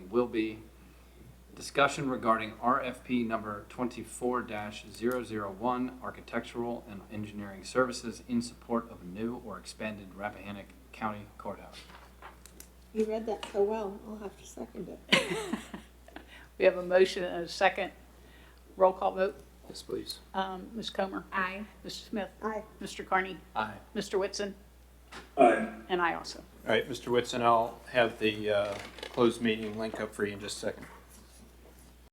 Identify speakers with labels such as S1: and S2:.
S1: will be discussion regarding RFP number twenty-four one architectural and engineering services in support of new or expanded Rappahannock County courthouse.
S2: You read that so well, I'll have to second it.
S3: We have a motion and a second. Roll call vote.
S4: Yes, please.
S3: Um, Ms. Comer?
S5: Aye.
S3: Mr. Smith?
S2: Aye.
S3: Mr. Carney?
S1: Aye.
S3: Mr. Whitson?
S6: Aye.
S3: And I also.
S4: All right, Mr. Whitson, I'll have the uh, closed meeting link up for you in just a second.